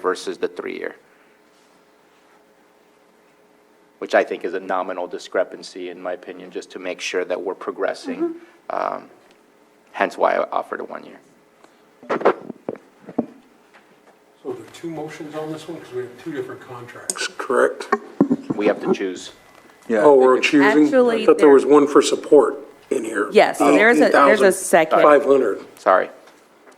versus the three-year, which I think is a nominal discrepancy, in my opinion, just to make sure that we're progressing. Um, Hence why I offered a one-year. So there are two motions on this one, because we have two different contracts. Correct? We have to choose. Yeah, I Oh, we're think it's- choosing, I Actually, thought there there- was one for support in here. Oh, Yes, there's a- there's a second. 500. Sorry.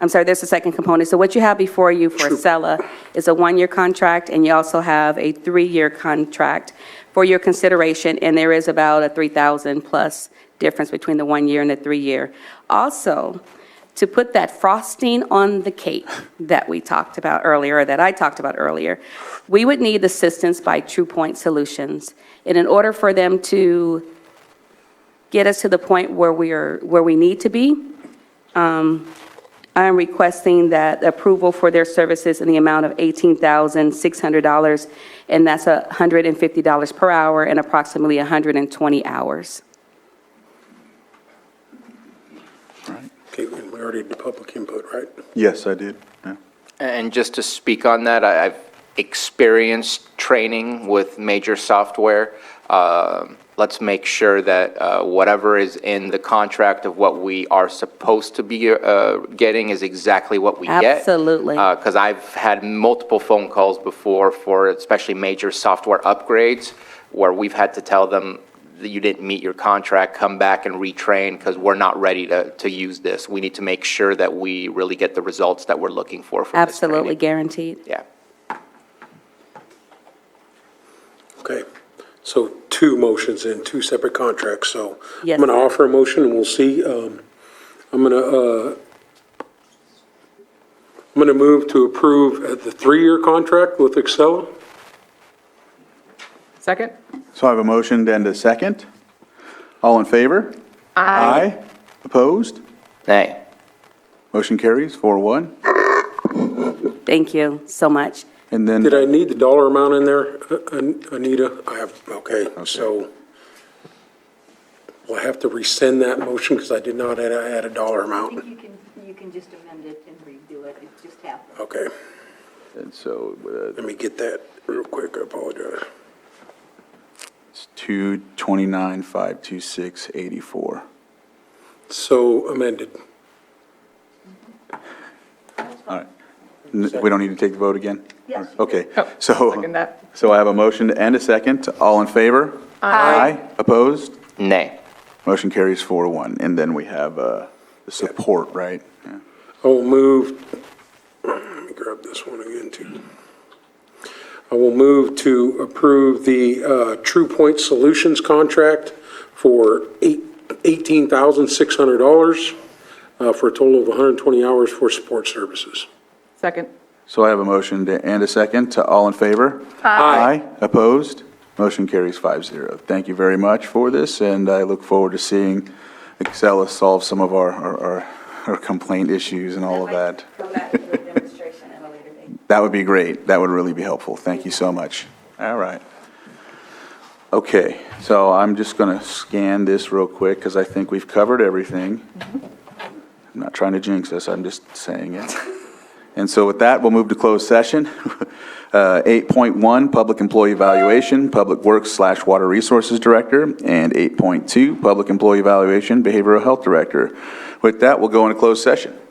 I'm sorry, there's a second component. So what you have before you for Acela is a one-year contract, and you also have a three-year contract for your consideration, and there is about a 3,000-plus difference between the one-year and the three-year. Also, to put that frosting on the cake that we talked about earlier, or that I talked about earlier, we would need assistance by True Point Solutions. And in order for them to get us to the point where we are, where we need to be, I'm requesting that approval for their services in the amount of $18,600, and that's a $150 per hour and approximately 120 hours. Okay, and we already did public input, right? Yes, I did, yeah. And just to speak on that, I- I've experienced training with major software. Um, Let's make sure that uh, whatever is in the contract of what we are supposed to be uh, getting is exactly what we get. Uh, Absolutely. Because I've had multiple phone calls before for especially major software upgrades where we've had to tell them that you didn't meet your contract, come back and retrain because we're not ready to, to use this. We need to make sure that we really get the results that we're looking for from this training. Absolutely guaranteed. Yeah. Okay, so two motions and two separate contracts, so. Yes. I'm going to offer a motion and we'll see. Um, I'm going to, I'm going to move to approve uh, the three-year contract with Excel. Second? So I have a motion and a second. All in favor? Aye. Opposed? Nay. Motion carries, four one. Thank you so much. And then, Did I need the dollar amount in there, uh, An- Anita? I have, okay, so we'll have to rescind that motion because I did not add, add a dollar I think amount. you can, you can just amend it and redo it, it just happened. Okay, and so uh, let me get that real quick, I apologize. it's two twenty-nine, five two six, eighty-four. So amended. N- We don't need to take the vote again? Yes. Okay, Oh, so, second that. so I have a motion and a second. All in favor? Aye. Opposed? Nay. Motion carries four one. And then we have uh, the support, right? Yeah. I will move, let me grab this one again too. I will move to approve the uh, True Point Solutions contract for eight- $18,600 uh, for a total of 120 hours for support services. Second? So I have a motion to- and a second. To all in favor? Aye. Opposed? Motion carries five zero. Thank you very much for this, and I look forward to seeing Excella solve some of our- our, our- our complaint issues and all of that. Come back to the demonstration at a later date. That would be great. That would really be helpful. Thank you so much. All right. Okay, so I'm just going to scan this real quick because I think we've covered everything. I'm not trying to jinx us, I'm just saying it. And so with that, we'll move to closed session. Uh, 8.1, Public Employee Evaluation, Public Works slash Water Resources Director, and 8.2, Public Employee Evaluation, Behavioral Health Director. With that, we'll go into closed session.